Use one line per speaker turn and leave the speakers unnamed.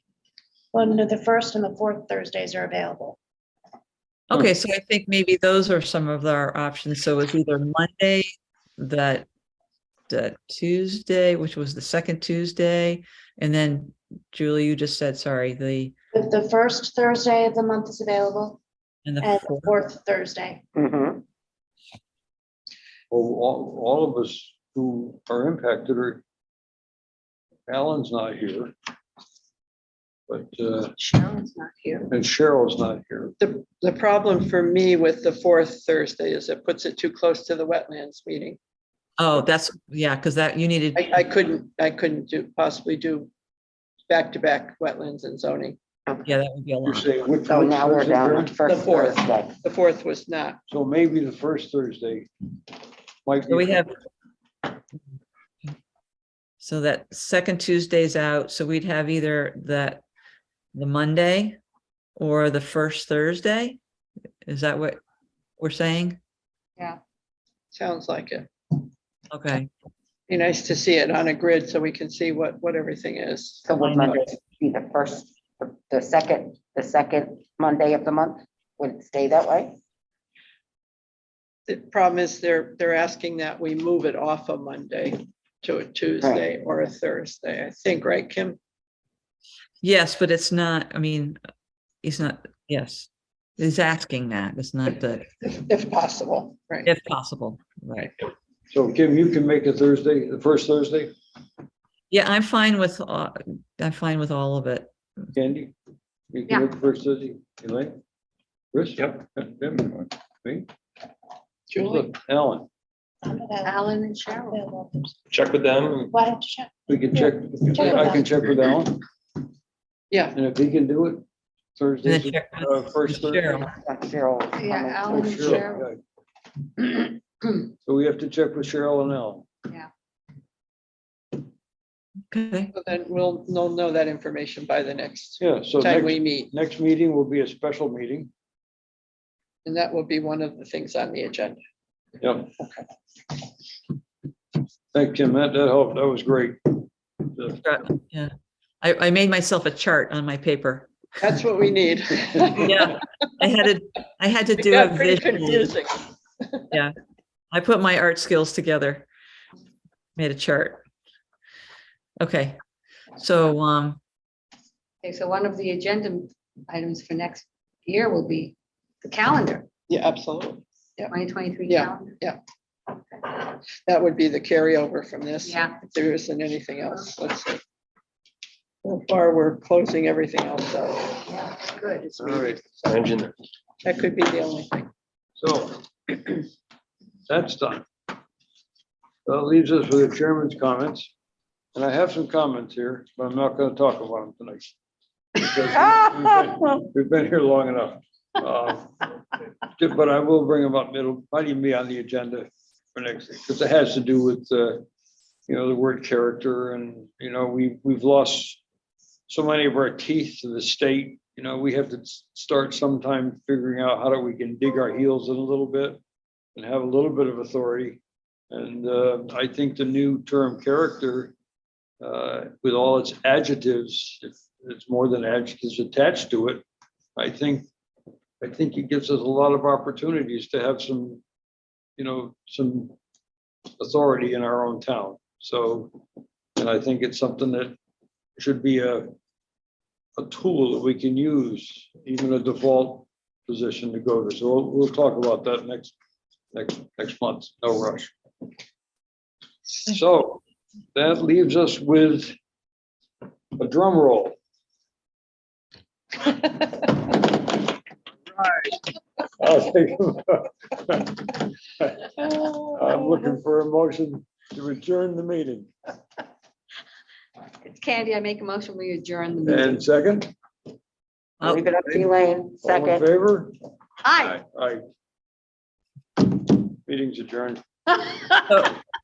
Well, no, the first and the fourth Thursdays are available.
Okay, so I think maybe those are some of our options. So it's either Monday, that, that Tuesday, which was the second Tuesday. And then Julie, you just said, sorry, the,
The, the first Thursday of the month is available
and the
and the
fourth.
fourth Thursday.
Mm-hmm.
Mhm.
Well, all, all of us who are impacted are, Alan's not here. But, uh,
Sharon's not here.
and Cheryl's not here.
The, the problem for me with the fourth Thursday is it puts it too close to the wetlands meeting.
Oh, that's, yeah, because that, you needed,
I, I couldn't, I couldn't do, possibly do back-to-back wetlands and zoning.
yeah, that would be a
You're
lot.
saying which-
So
which
now we're
Thursday,
down
Karen?
to first
The fourth.
Thursday.
The fourth was not.
So maybe the first Thursday. Might
So we
be-
have. So that second Tuesday's out, so we'd have either that, the Monday or the first Thursday? Is that what we're saying?
Sounds like it.
Okay.
Be nice to see it on a grid so we can see what, what everything is.
So would Monday be the first, the- the second, the second Monday of the month? Would it stay that way?
The problem is they're, they're asking that we move it off a Monday to a Tuesday or a Thursday, I think, right, Kim?
Yes, but it's not, I mean, he's not, yes, he's asking that. It's not the,
If if possible, right?
if possible, right?
So Kim, you can make it Thursday, the first Thursday,
Yeah, I'm fine with, uh, I'm fine with all of it.
Candy? You can make it first Thursday, Elaine? Chris? Yep. Me?
Julie,
Alan,
Alan and Cheryl.
check with them.
Why don't you check?
we can check, I can check with Alan,
yeah,
and if he can do it,
And then
Thursday,
check with-
uh, first
with
Thursday.
Cheryl.
Like Cheryl.
Yeah,
um,
Alan and
Cheryl, yeah. So we have to check with Cheryl and Al.
Okay,
so then we'll, we'll know that information by the next
Yeah, so
time we
next,
meet,
next meeting will be a special meeting.
and that will be one of the things on the agenda.
Yep. Thank Kim, that, that helped, that was great. The-
yeah. I, I made myself a chart on my paper.
That's what we need. It
Yeah, I had to, I had to do a
got pretty
visual.
confusing.
I put my art skills together. Made a chart. Okay, so, um,
Okay, so one of the agenda items for next year will be the calendar,
Yeah, absolutely.
twenty twenty-three
Yeah.
calendar.
That would be the carryover from this.
Yeah,
If there isn't anything else, let's see. So far, we're closing everything else out.
yeah, good.
All right,
Engine.
That could be the only thing.
so that's done. That leaves us with the chairman's comments, and I have some comments here, but I'm not gonna talk about them tonight. Because we've been- We've been here long enough. Uh, But I will bring them up, it'll probably be on the agenda for next, because it has to do with, uh, you know, the word character and, you know, we, we've lost so many of our teeth to the state, you know, we have to s- start sometime figuring out how do we can dig our heels in a little bit and have a little bit of authority. And uh, I think the new term character, uh, with all its adjectives, if it's more than adjectives attached to it, I think, I think it gives us a lot of opportunities to have some, you know, some authority in our own town. So, and I think it's something that should be a, a tool that we can use, even a default position to go to. So we'll, we'll talk about that next, next, next month, no rush. So that leaves us with a drum roll. I'll take- I'm looking for a motion to adjourn the meeting.
Candy, I make a motion, we adjourn the meeting.
And second,
oh,
Leave it up to Elaine,
all in
second.
favor?
Hi.
Aye. Meeting's adjourned.
so